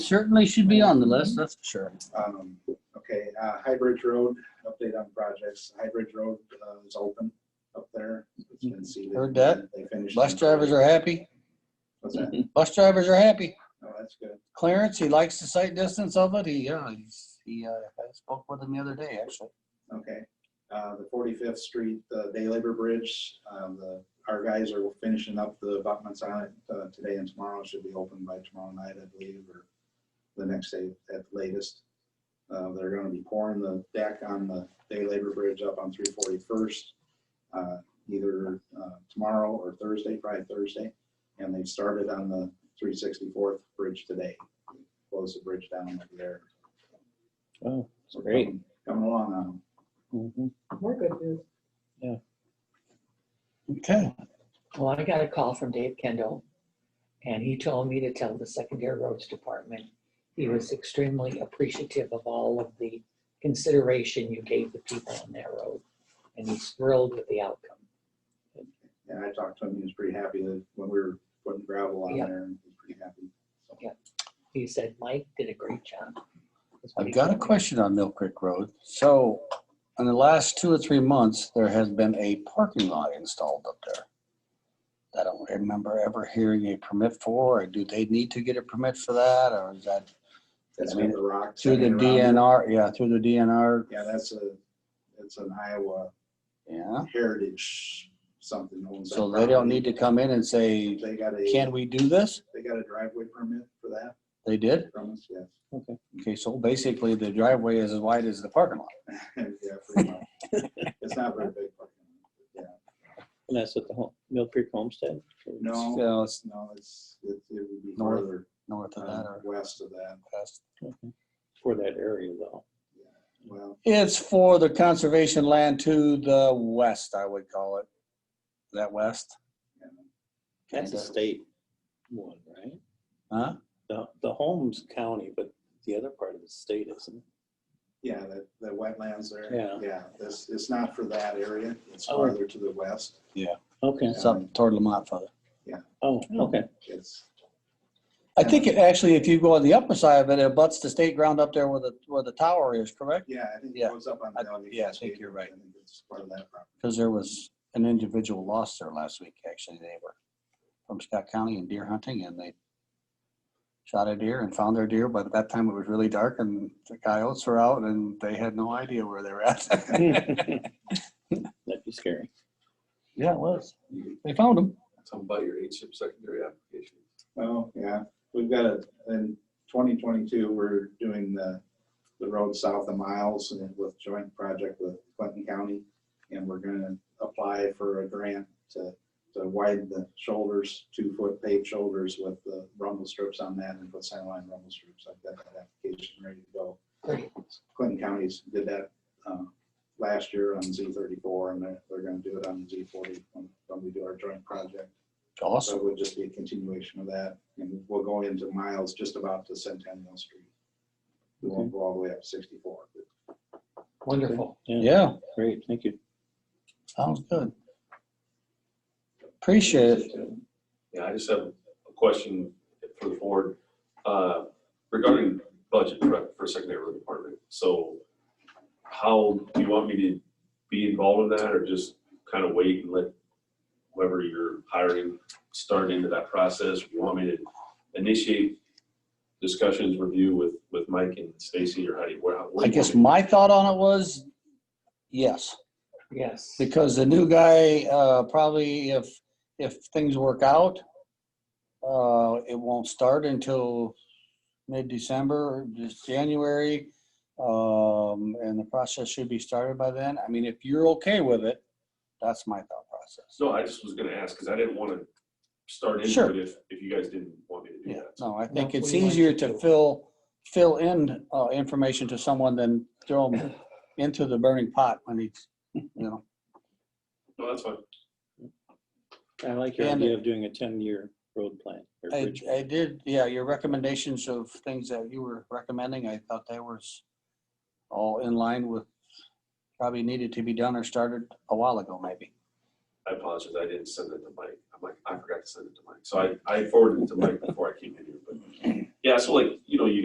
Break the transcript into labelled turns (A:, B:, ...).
A: Certainly should be on the list, that's for sure.
B: Um, Okay, uh, High Bridge Road, update on projects. High Bridge Road uh, is open up there. It's been seeded.
A: Mm-hmm. Heard that.
B: They finished.
A: Bus drivers are happy.
B: What's that?
A: Bus drivers are happy.
B: Oh, that's good.
A: Clarence, he likes the sight distance of it. He, uh, he's, he, uh, I spoke with him the other day, actually.
B: Okay. Uh, The 45th Street uh, Day Labor Bridge, um, the, our guys are finishing up the abutments on it uh, today and tomorrow. It Should be open by tomorrow night, I believe, or the next day at the latest. Uh, They're going to be pouring the deck on the Day Labor Bridge up on 341st, uh, either uh, tomorrow or Thursday, probably Thursday. And they started on the 364th Bridge today. Closed the bridge down over there.
C: Oh,
B: So
C: Great.
B: coming- Coming along on 'em.
C: mhm.
D: We're good news.
A: Okay.
D: Well, I got a call from Dave Kendall, and he told me to tell the secondary roads department he was extremely appreciative of all of the consideration you gave the people on that road, and he's thrilled with the outcome.
B: And I talked to him, he was pretty happy that when we were putting gravel on
D: Yeah.
B: there, he was pretty happy. So,
D: He said, Mike did a great job. That's what he
A: I've got a
D: told me.
A: question on Mill Creek Road. So in the last two or three months, there has been a parking lot installed up there. I don't remember ever hearing a permit for, or do they need to get a permit for that, or is that
B: That's
A: I mean,
B: made the rocks.
A: through the
B: hanging around.
A: DNR? Yeah, through the DNR.
B: Yeah, that's a, it's an Iowa
A: Yeah.
B: heritage something. owns that
A: So they don't
B: property.
A: need to come in and say,
B: They got a,
A: can we do this?
B: they got a driveway permit for that
A: They did.
B: from us, yes.
A: Okay, so basically the driveway is as wide as the parking lot.
B: Yeah, pretty much. It's not very big. but, Yeah,
C: And that's at the home, Mill Creek Homestead?
B: no,
A: So it's uh,
B: no, it's, it it would be
A: North
B: further
A: north of that
B: uh,
A: or
B: west of that.
A: west.
C: For that area though.
B: Well,
A: It's for the conservation land to the west, I would call it. Is that west?
B: yeah.
C: That's a state one, right?
A: Huh?
C: The, the home's county, but the other part of the state isn't.
B: Yeah, the, the wetlands there.
C: Yeah.
B: Yeah, this, it's not for that area. It's
C: Oh.
B: farther to the west.
C: Okay.
A: It's up toward Lamont further.
C: Oh, okay.
B: It's,
A: I think it actually, if you go on the upper side of it, it butts the state ground up there where the, where the tower is, correct?
B: yeah, I think it
A: Yeah.
B: goes up on.
A: I-
B: the Allegheny
A: yeah, I think
B: Cascade.
A: you're right.
B: I think It's part of that property.
A: Because there was an individual lost there last week, actually. They were from Scott County and deer hunting and they shot a deer and found their deer, but at that time it was really dark and the coyotes were out and they had no idea where they were at.
C: That'd be scary.
A: Yeah, it was. They found them.
E: Tell them about your HIP secondary application.
B: Oh, yeah. We've got a, in twenty twenty-two, we're doing the, the road south of Miles and with joint project with Clinton County. And we're gonna apply for a grant to, to widen the shoulders, two-foot paved shoulders with the rumble strips on that and put center line rumble strips. I've got that application ready to go.
D: Great.
B: Clinton County's did that, um, last year on Z thirty-four and they're, they're gonna do it on Z forty when, when we do our joint project. So
A: Awesome.
B: it would just be a continuation of that, and we'll go into miles just about to Centennial Street. We won't go all the way up sixty-four.
D: Wonderful.
A: Yeah.
C: Great, thank you.
A: Sounds good. Appreciate it.
E: Yeah, I just have a question for the board uh, regarding budget prep for secondary road department. So how, do you want me to be involved in that or just kind of wait and let whoever you're hiring start into that process? Do You want me to initiate discussions, review with, with Mike and Stacy or how do you? what- what
A: I
E: do you
A: guess
E: want me-
A: my thought on it was, yes,
D: Yes.
A: because the new guy, uh, probably if, if things work out, uh, it won't start until mid-December, just January. Um, and the process should be started by then. I mean, if you're okay with it, that's my thought process.
E: No, I just was gonna ask because I didn't want to start into
A: Sure.
E: it if, if you guys didn't want me to do
A: Yeah,
E: that.
A: no, I
D: That's
A: think it's
D: what he wants
A: easier
D: to
A: to
D: do.
A: fill, fill in uh, information to someone than throw them into the burning pot when he's, you know.
E: No, that's fine.
C: I like your
A: And-
C: idea of doing a ten-year road plan. or
A: I,
C: bridge.
A: I did, yeah, your recommendations of things that you were recommending, I thought they were s- all in line with probably needed to be done or started a while ago, maybe.
E: I apologize, I didn't send it to Mike. I'm like, I forgot to send it to Mike. So I, I forwarded it to Mike before I came in here, but Yeah, so like, you know, you